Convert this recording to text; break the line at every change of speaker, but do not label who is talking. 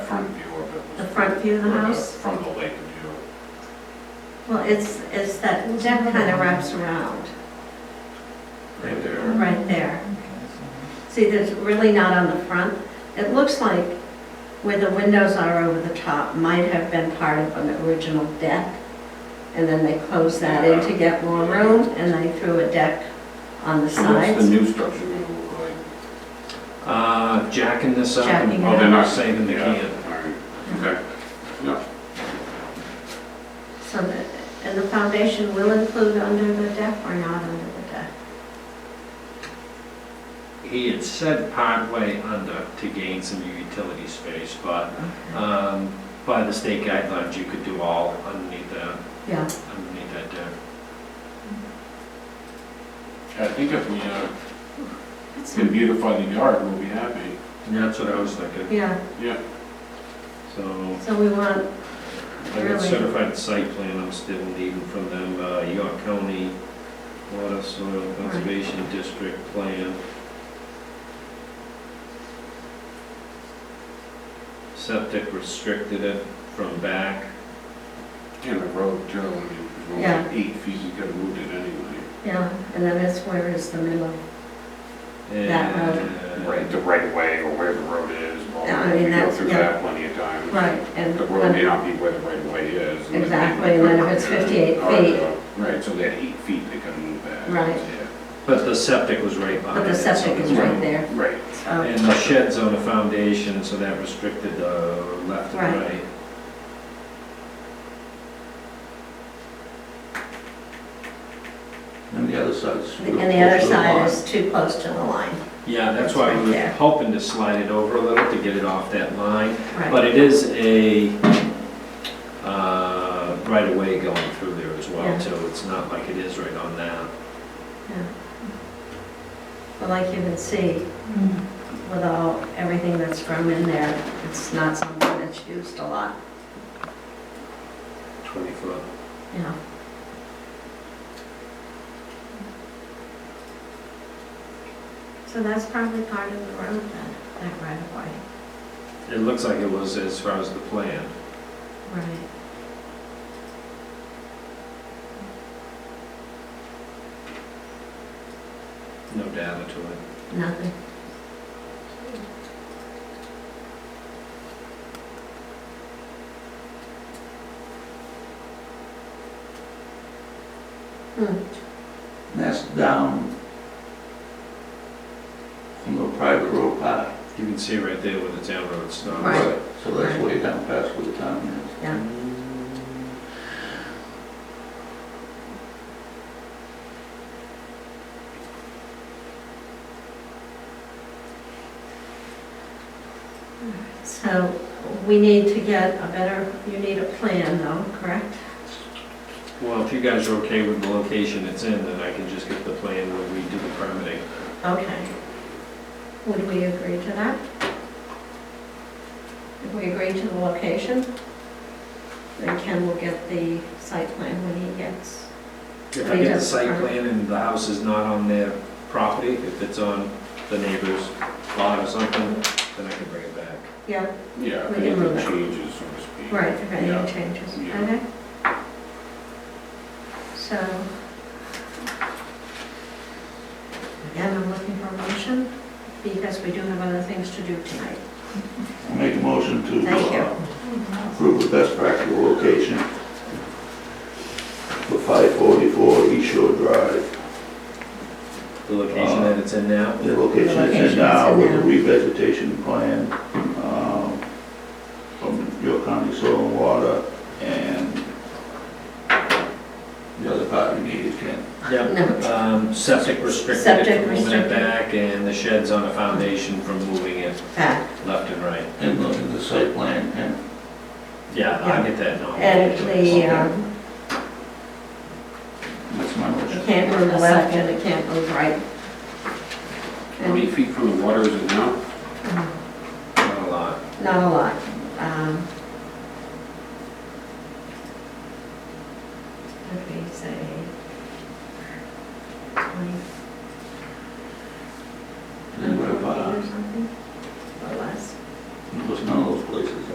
front view of it. was-
The front view of the house?
From the lake view.
Well, it's, it's that, that kind of wraps around,
Right there.
right there. See, there's really not on the front. It looks like where the windows are over the top might have been part of an original deck. And then they closed that in to get more room, and they threw a deck on the
What's the
sides.
new structure gonna look like?
Uh, jacking this up
Jacking
and
it up.
Oh, they're not-
saving the
Yeah,
can.
all right. Okay,
So that, and the foundation will include under the deck or not under the deck?
He had said partway under to gain some utility space, but, um, by the state guidelines, you could do all underneath that,
Yeah,
underneath that deck.
I think if we uh,
that's-
can beautify the yard, we'll be happy.
And that's what I was thinking,
yeah,
so.
so we want,
I got
Really?
certified site plan, I'm still needing from them, uh, York County Water Soil Conservation District Plan. Septic restricted it from back,
And the road too, I mean, if it's
Yeah.
only eight feet, you could have moved it anyway.
yeah, and then that's where is the middle. That road.
and.
Right, the right way or where the road is, well,
Yeah, I mean,
we go
that's-
through
yeah.
that plenty of times.
Right, and,
The road may not be where the right way is. and then-
Exactly, and then if it's 58
Or, uh,
feet.
Right, so that eight feet, they could move that.
Right.
Yeah.
But the septic was right
but
behind
the
it, so
septic is
it's-
right there,
Right,
so.
And the shed's on the foundation, so that restricted the left and
Right.
right.
And the other side is.
And the other side is too close to the line,
Yeah, that's why we
It's right
were
there.
hoping to slide it over a little to get it off that line.
right,
But it is a uh, right-of-way going through there as
Yeah.
well, too. It's not like it is right on that.
but like you can see, with all, everything that's from in there, it's not something that's used a lot,
20-foot.
you know. So that's probably part of the road then, that right of way.
It looks like it was as far as the plan.
Right.
No data to it.
Nothing. Hmm,
And That's down from the private road path.
You can see right there where the town road stops.
Right.
So that's way down past where the town is.
yeah, so we need to get a better, you need a plan though, correct?
Well, if you guys are okay with the location it's in, then I can just get the plan when we do the permitting.
Okay. Would we agree to that? If we agree to the location, then Ken will get the site plan when he gets,
If I get the site plan and the house is not on their property, if it's on the neighbor's lot or something, then I can bring it back.
yeah,
yeah,
We
if
can
anything
move it.
changes, so to speak.
right, if
Yeah.
any changes,
Yeah.
okay? So. Again, I'm looking for a motion, because we do have other things to do tonight.
I'll Make a motion to. uh,
Thank you.
Approve the best practical location for five forty-four East Shore Drive.
The location that it's in now?
The location
Location it's
is
in
in now with
now.
the revegetation plan, um, from York County Soil and Water and the other part you need is Ken.
Yep, um, septic restricted
Septic
it from moving it
restricted.
back, and the shed's on a foundation from moving it
Fact.
left and right.
And look at the site plan and
Yeah, I get that now.
And the, um,
that's my
It
motion.
can't move left and it can't move right.
How many
And
Mm-hmm.
uh,
feet from the water is it now?
Not a lot.
Not a lot. Um,
uh,